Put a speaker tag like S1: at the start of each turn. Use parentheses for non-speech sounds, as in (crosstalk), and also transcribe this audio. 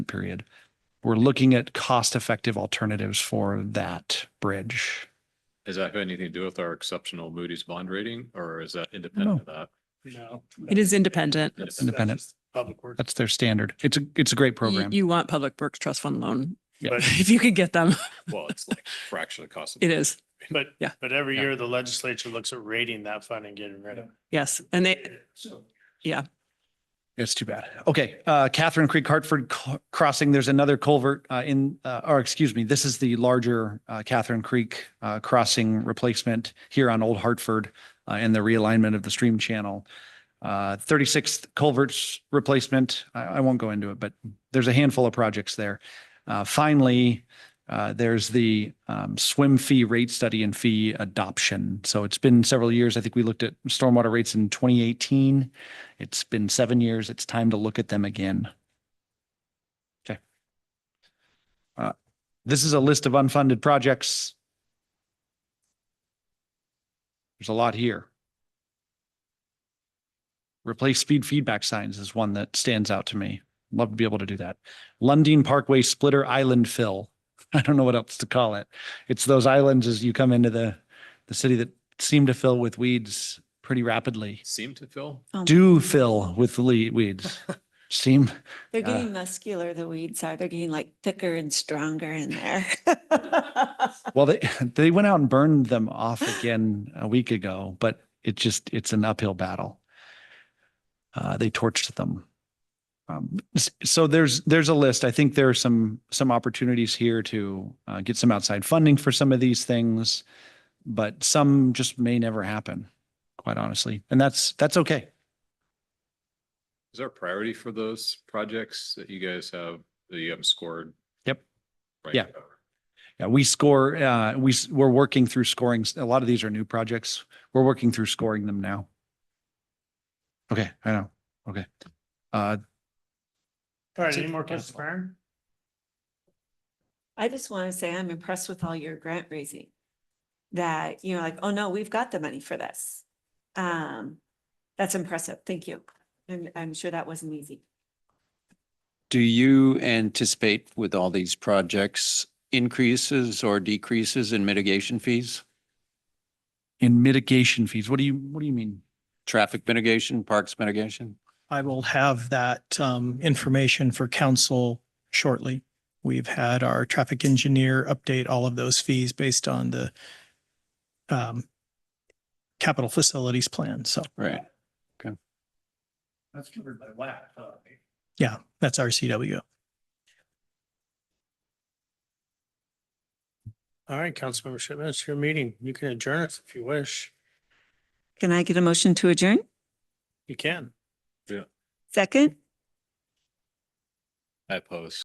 S1: period. We're looking at cost-effective alternatives for that bridge.
S2: Does that have anything to do with our exceptional Moody's bond rating or is that independent of that?
S3: No.
S4: It is independent.
S3: That's- that's
S1: Independent.
S3: just Public work.
S1: That's their standard. It's a, it's a great
S4: You,
S1: program.
S4: you want Public Works Trust Fund loan. (laughs)
S1: Yeah.
S3: But-
S4: If you could get them,
S2: Well, it's like fraction of the cost. of-
S4: it is.
S3: (laughs) But,
S4: Yeah.
S3: but every
S1: Yeah.
S3: year the legislature looks at rating that fund and getting rid of it.
S4: Yes. And they,
S3: So.
S1: It's too bad. Okay, uh, Catherine Creek Hartford c- Crossing, there's another culvert, uh, in, uh, or excuse me, this is the larger, uh, Catherine Creek, uh, crossing replacement here on Old Hartford, uh, and the realignment of the stream channel. Uh, thirty-sixth culverts replacement, I, I won't go into it, but there's a handful of projects there. Uh, finally, uh, there's the, um, swim fee rate study and fee adoption. So it's been several years. I think we looked at stormwater rates in twenty eighteen. It's been seven years. It's time to look at them again. Okay. Uh, This is a list of unfunded projects. There's a lot here. Replace speed feedback signs is one that stands out to me. Love to be able to do that. Lundin Parkway Splitter Island Fill. (laughs) I don't know what else to call it. It's those islands as you come into the, the city that seem to fill with weeds pretty rapidly
S2: Seem to fill?
S5: Oh
S1: do fill with le- weeds. Seem,
S5: They're
S1: Uh,
S5: getting muscular, the weeds are. They're getting like thicker and stronger in there. (laughs)
S1: well, they, they went out and burned them off again a week ago, but it just, it's an uphill battle. Uh, they torched them. Um, s- so there's, there's a list. I think there are some, some opportunities here to, uh, get some outside funding for some of these things. But some just may never happen, quite honestly. And that's, that's okay.
S2: Is there a priority for those projects that you guys have, that you haven't scored?
S1: Yep.
S2: Right.
S1: Yeah. Yeah, we score, uh, we, s- we're working through scoring. A lot of these are new projects. We're working through scoring them now. Okay, I know. Okay. Uh,
S3: All right,
S1: That's
S3: any
S1: it.
S3: more
S1: Yeah.
S3: questions, Byron?
S5: I just want to say I'm impressed with all your grant raising. That, you know, like, oh no, we've got the money for this. Um, that's impressive. Thank you. And I'm sure that wasn't easy.
S6: Do you anticipate with all these projects increases or decreases in mitigation fees?
S1: in mitigation fees, what do you, what do you mean?
S6: Traffic mitigation, parks mitigation?
S7: I will have that um information for council shortly. We've had our traffic engineer update all of those fees based on the um capital facilities plan. So
S6: Right.
S3: That's covered by WAC.
S7: yeah, that's our CWO.
S3: All right, Councilmember Shipman, it's your meeting. You can adjourn us if you wish.
S5: Can I get a motion to adjourn?
S3: You can.
S5: Second?
S2: I oppose.